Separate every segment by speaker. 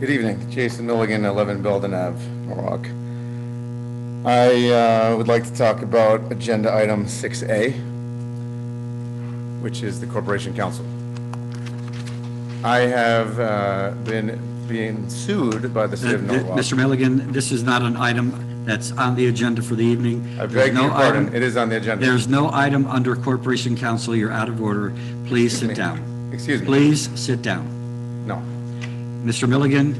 Speaker 1: Good evening, Jason Milligan, 11 Belden Ave, Norwalk. I uh, would like to talk about Agenda Item 6A, which is the Corporation Council. I have uh, been being sued by the city
Speaker 2: Uh,
Speaker 1: of
Speaker 2: th-
Speaker 1: Norwalk.
Speaker 2: Mr. Milligan, this is not an item that's on the agenda for the evening.
Speaker 1: I
Speaker 2: There's
Speaker 1: beg
Speaker 2: no
Speaker 1: your pardon,
Speaker 2: item-
Speaker 1: it is on the agenda.
Speaker 2: There's no item under Corporation Council. You're out of order. Please sit down.
Speaker 1: Excuse me.
Speaker 2: Please sit down.
Speaker 1: No,
Speaker 2: Mr. Milligan,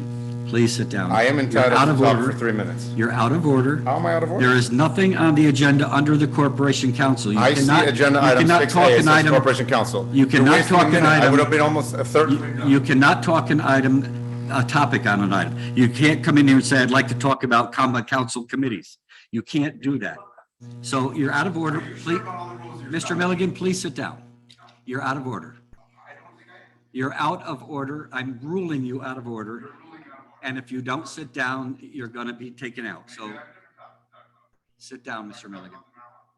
Speaker 2: please sit down.
Speaker 1: I am
Speaker 2: You're out
Speaker 1: entitled
Speaker 2: of
Speaker 1: to talk
Speaker 2: order.
Speaker 1: for three minutes.
Speaker 2: You're out of order.
Speaker 1: How am I out of
Speaker 2: There
Speaker 1: order?
Speaker 2: is nothing on the agenda under the Corporation Council. You
Speaker 1: I see
Speaker 2: cannot-
Speaker 1: Agenda
Speaker 2: you
Speaker 1: Item
Speaker 2: cannot
Speaker 1: 6A,
Speaker 2: talk
Speaker 1: it
Speaker 2: an
Speaker 1: says
Speaker 2: item-
Speaker 1: Corporation Council.
Speaker 2: You
Speaker 1: You're
Speaker 2: cannot
Speaker 1: wasting a
Speaker 2: talk an
Speaker 1: minute. I
Speaker 2: item-
Speaker 1: would have been almost a third.
Speaker 2: You cannot talk an item, a topic on an item. You can't come in here and say, I'd like to talk about common council committees. You can't do that. So you're out of order. Please, Mr. Milligan, please sit down. You're out of order. You're out of order. I'm ruling you out of order. And if you don't sit down, you're going to be taken out. So sit down, Mr. Milligan.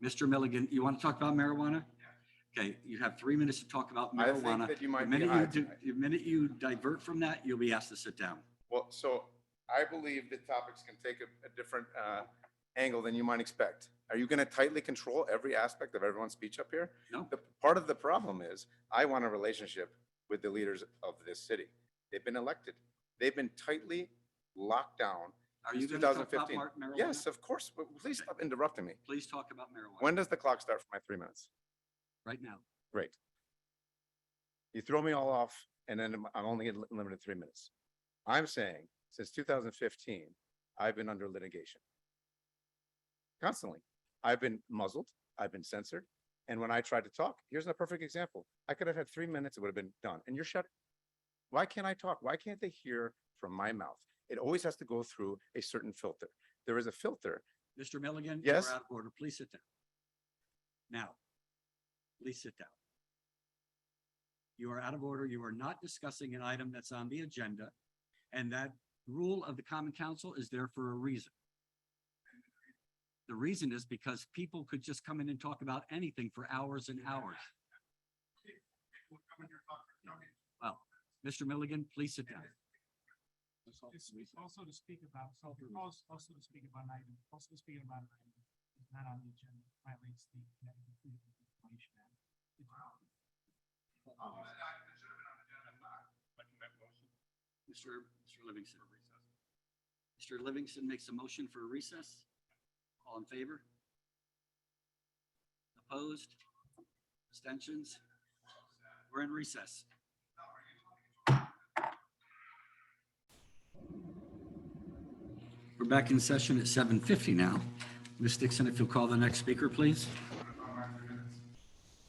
Speaker 2: Mr. Milligan, you want to talk about marijuana? Okay, you have three minutes to talk about
Speaker 1: I think
Speaker 2: marijuana.
Speaker 1: that you
Speaker 2: The
Speaker 1: might be
Speaker 2: minute
Speaker 1: high
Speaker 2: do-
Speaker 1: tonight.
Speaker 2: The minute you divert from that, you'll be asked to sit down.
Speaker 1: Well, so I believe the topics can take a, a different, uh, angle than you might expect. Are you gonna tightly control every aspect of everyone's speech up here?
Speaker 2: No.
Speaker 1: The, part of the problem is, I want a relationship with the leaders of this city. They've been elected. They've been tightly locked down.
Speaker 2: Are
Speaker 1: since
Speaker 2: you going to talk about
Speaker 1: 2015.
Speaker 2: mar- marijuana?
Speaker 1: Yes, of course, but please stop interrupting me.
Speaker 2: Please talk about marijuana
Speaker 1: When does the clock start for my three minutes?
Speaker 2: right now.
Speaker 1: Great. You throw me all off and then I'm- I'm only getting li- limited three minutes. I'm saying since 2015, I've been under litigation. Constantly. I've been muzzled. I've been censored. And when I tried to talk, here's a perfect example. I could have had three minutes. It would have been done. And you're shut. Why can't I talk? Why can't they hear from my mouth? It always has to go through a certain filter. There is a filter.
Speaker 2: Mr. Milligan?
Speaker 1: Yes.
Speaker 2: You're out of order. Please sit down. Now, please sit down. You are out of order. You are not discussing an item that's on the agenda. And that rule of the common council is there for a reason. The reason is because people could just come in and talk about anything for hours and hours. Well, Mr. Milligan, please sit down.
Speaker 3: It's it's also to speak about, so if you're als- also to speak about an item, also to speak about an item, that's not on the agenda, violates the Connecticut Freedom of Information Act.
Speaker 2: Mr. Mr. Livingston. Mr. Livingston makes a motion for a recess. All in favor? Opposed? Abstentions? We're in recess. We're back in session at seven fifty now. Ms. Dixon, if you'll call the next speaker, please.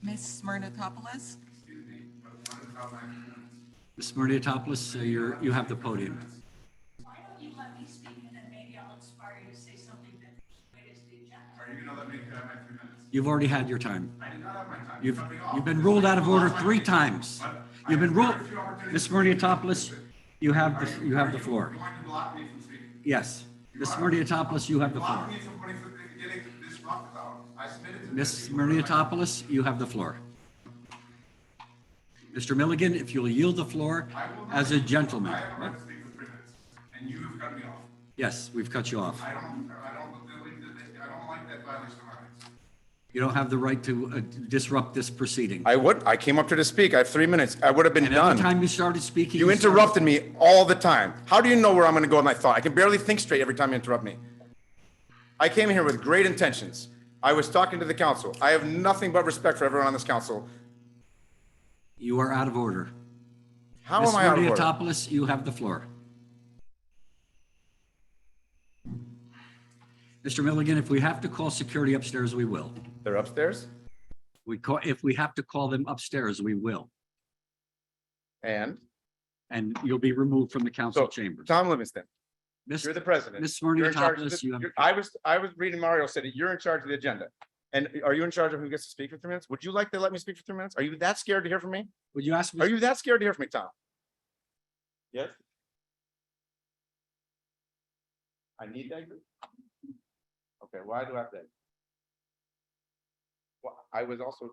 Speaker 4: Ms. Smirnakopoulos?
Speaker 2: Ms. Smyrniotopoulos, uh, you're, you have the podium.
Speaker 5: Why don't you let me speak and then maybe I'll inspire you to say something that is the agenda.
Speaker 2: You've already had your time. You've, you've been ruled out of order three times. You've been ruled, Ms. Murniotopoulos, you have, the you have the floor. Yes, Ms. Murniotopoulos, you have the floor. Ms. Murniotopoulos, you have the floor. Mr. Milligan, if you'll yield the floor as a gentleman. Yes, we've cut you off. You don't have the right to uh, disrupt this proceeding.
Speaker 1: I would, I came up here to speak. I have three minutes. I would have been
Speaker 2: And every
Speaker 1: done.
Speaker 2: time you started speaking.
Speaker 1: You
Speaker 2: started-
Speaker 1: interrupted me all the time. How do you know where I'm going to go with my thought? I can barely think straight every time you interrupt me. I came here with great intentions. I was talking to the council. I have nothing but respect for everyone on this council.
Speaker 2: You are out of order.
Speaker 1: How
Speaker 2: Ms.
Speaker 1: am I out of order?
Speaker 2: Murniotopoulos, you have the floor. Mr. Milligan, if we have to call security upstairs, we will.
Speaker 1: They're upstairs,
Speaker 2: We call, if we have to call them upstairs, we will.
Speaker 1: and
Speaker 2: And you'll be removed from the council
Speaker 1: so
Speaker 2: chamber.
Speaker 1: Tom Livingston,
Speaker 2: Miss-
Speaker 1: you're the president.
Speaker 2: Ms.
Speaker 1: You're in charge of
Speaker 2: Smyrniotopoulos,
Speaker 1: the-
Speaker 2: you have,
Speaker 1: you're- I was I was reading Mario City. You're in charge of the agenda, and are you in charge of who gets to speak for three minutes? Would you like to let me speak for three minutes? Are you that scared to hear from me?
Speaker 2: would you ask, Ms.
Speaker 1: Are you that scared to hear from me, Tom? Yes. I need that group? Okay, why do I have that? Well, I was also